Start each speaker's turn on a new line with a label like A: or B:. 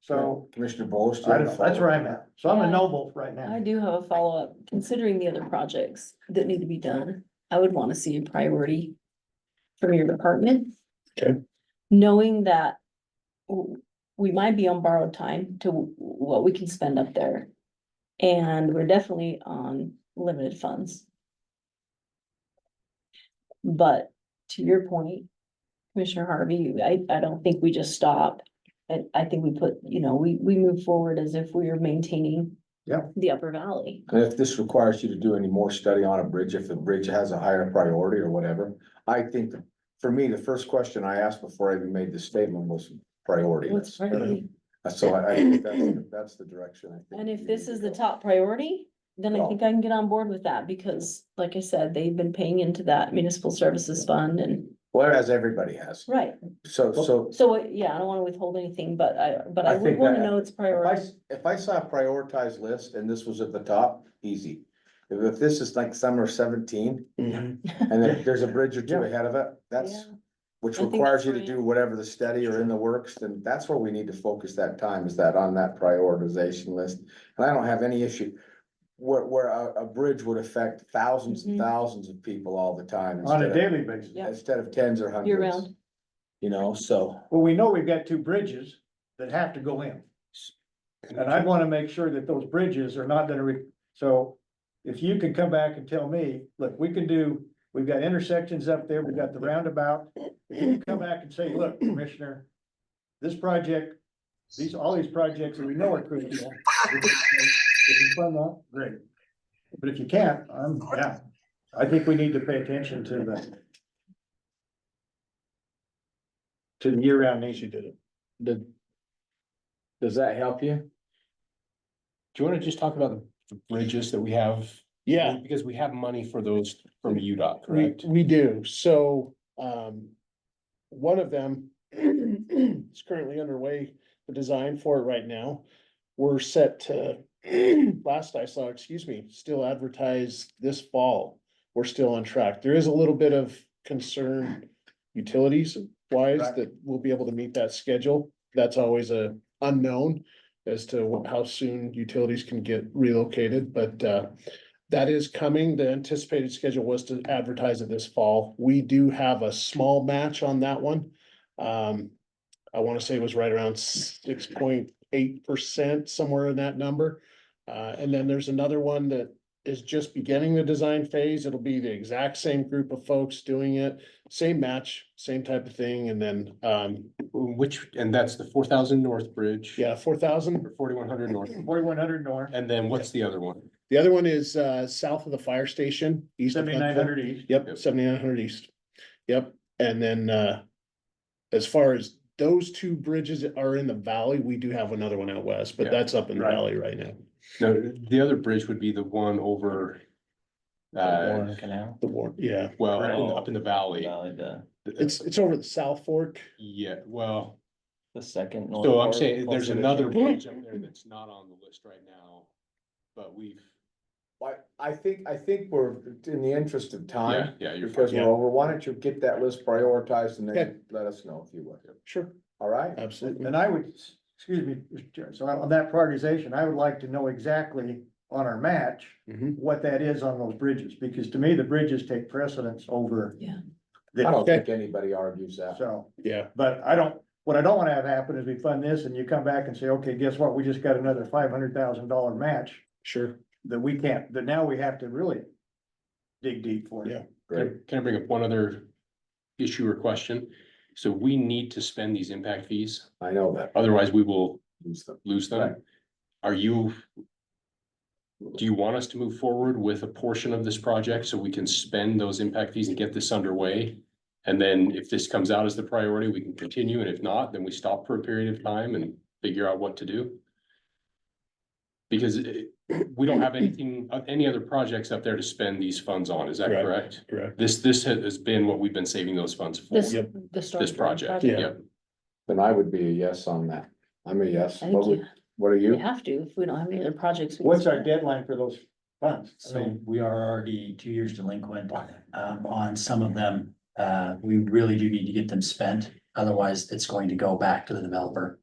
A: so
B: Commissioner Bowles.
A: I don't know, that's where I'm at, so I'm a no vote right
C: I
A: now.
C: do have a follow-up, considering the other projects that need to be done, I would wanna see a priority from your department.
B: Okay.
C: Knowing that w- we might be on borrowed time to w- what we can spend up there. And we're definitely on limited funds. But to your point, Commissioner Harvey, I, I don't think we just stop. I, I think we put, you know, we, we move forward as if we are maintaining the upper valley.
B: And if this requires you to do any more study on a bridge, if the bridge has a higher priority or whatever, I think, for me, the first question I asked before I even made this statement was priority. Uh,
C: What's priority?
B: So I, I think that's, the- that's the direction I think.
C: And if
B: we
C: this
B: need
C: is
B: to
C: the
B: go.
C: top priority, then I
B: Well-
C: think I can get on board with that because, like I said, they've been paying into that municipal services fund and,
B: Well, as everybody has,
C: right.
B: so, so.
C: So, uh, yeah, I don't wanna withhold anything, but I, but
B: I
C: I would
B: think
C: wanna
B: that-
C: know it's
B: If I,
C: priority.
B: s- if I saw a prioritized list and this was at the top, easy. If, if this is like summer seventeen and then there's a bridge or two
A: Mm-hmm. Yeah.
B: ahead of it, that's,
C: Yeah. I
B: which
C: think
B: requires you
C: that's
B: to
C: right.
B: do whatever the study or in the works, then that's where we need to focus that time, is that on that prioritization list. And I don't have any issue where, where a, a bridge would affect thousands and
C: Mhm.
B: thousands of people all the time.
A: On
B: instead
A: a
B: of-
A: daily basis,
C: Yeah.
B: Instead of tens or
C: Year
B: hundreds,
C: round,
B: you know, so.
A: well, we know we've got two bridges that have to go in. And I wanna make sure that those bridges are not gonna re, so if you can come back and tell me, look, we can do, we've got intersections up there, we've got the roundabout. If you come back and say, look, Commissioner, this project, these, all these projects that we know are critical. If you fund that, great. But if you can't, I'm, yeah, I think we need to pay attention to the to the year-round needs you did it.
B: Did- Does that help you?
D: Do you wanna just talk about the bridges that we have?
E: Yeah,
D: Because we have money for those from UDOT,
E: we,
D: correct?
E: we do. So, um, one of them is currently underway, the design for it right now. We're set to, last I saw, excuse me, still advertised this fall. We're still on track. There is a little bit of concern utilities wise
A: Right.
E: that we'll be able to meet that schedule. That's always a unknown as to wh- how soon utilities can get relocated, but, uh, That is coming. The anticipated schedule was to advertise it this fall. We do have a small match on that one. Um, I want to say it was right around six point eight percent, somewhere in that number. Uh, and then there's another one that is just beginning the design phase. It'll be the exact same group of folks doing it, same match, same type of thing. And then, um,
D: Which, and that's the four thousand North Bridge.
E: yeah, four thousand.
D: Or forty-one hundred North.
A: Forty-one hundred north,
D: And then what's the other one?
E: The other one is, uh, south of the fire station. east of
A: seventy-nine
E: Huntsville.
A: hundred east.
E: Yep,
D: Yep.
E: seventy-nine hundred east. Yep, and then, uh, as far as those two bridges are in the valley, we do have another one out west, but
D: Yeah,
E: that's up in the
A: right.
E: valley right now.
D: No, the other bridge would be the one over. Uh,
F: Canal.
E: The war, yeah,
D: well, up in- up in the valley.
F: Valley, the,
E: it's, it's over the South Fork.
D: Yeah, well,
F: the second. north
D: so I'm
F: part,
D: saying there's
F: closer to
D: another
F: the-
D: bridge up there that's not on the list right now. But we've,
B: I, I think, I think we're in the interest of
D: yeah,
B: time,
D: yeah, you're. fine.
B: because we're
E: yeah.
B: over, why don't you get that list prioritized and
E: Okay.
B: then let us know if you would,
E: Sure.
B: all right?
D: Uh,
E: Absolutely.
A: And I would, excuse me, Mr. Chair, so on that prioritization, I would like to know exactly on our match
E: Mhm.
A: what that is on those bridges, because to me, the bridges take precedence over.
C: Yeah.
B: I
A: the
B: don't think anybody argues that.
A: So,
D: uh,
E: Yeah,
A: but I don't, what I don't wanna have happen is we fund this and you come back and say, okay, guess what? We just got another five hundred thousand dollar match
E: sure.
A: that we can't, that now we have to really dig deep for.
E: Yeah.
D: Can I- can I bring up one other issue or question? So we need to spend these impact fees,
B: I know that.
D: otherwise we will
B: It's the-
D: lose
B: Right.
D: them. Are you? Do you want us to move forward with a portion of this project so we can spend those impact fees and get this underway? And then if this comes out as the priority, we can continue, and if not, then we stop for a period of time and figure out what to do. Because eh, we don't have anything, uh, any other projects up there to spend these funds on, is that
E: Correct.
D: correct?
E: Correct.
D: This, this ha- has been what we've been saving those funds for,
C: this,
E: Yep.
C: the storm.
D: this project,
E: Yeah.
D: yep.
B: Then I would be a yes on that. I'm a yes.
C: I think
B: What
C: you-
B: would, what are
C: we
B: you?
C: have to, if we don't have any other projects. we can
A: What's our
C: spend.
A: deadline for those funds? I
F: So
A: mean,
F: we are already two years delinquent um on some of them. Uh, we really do need to get them spent, otherwise it's going to go back to the developer.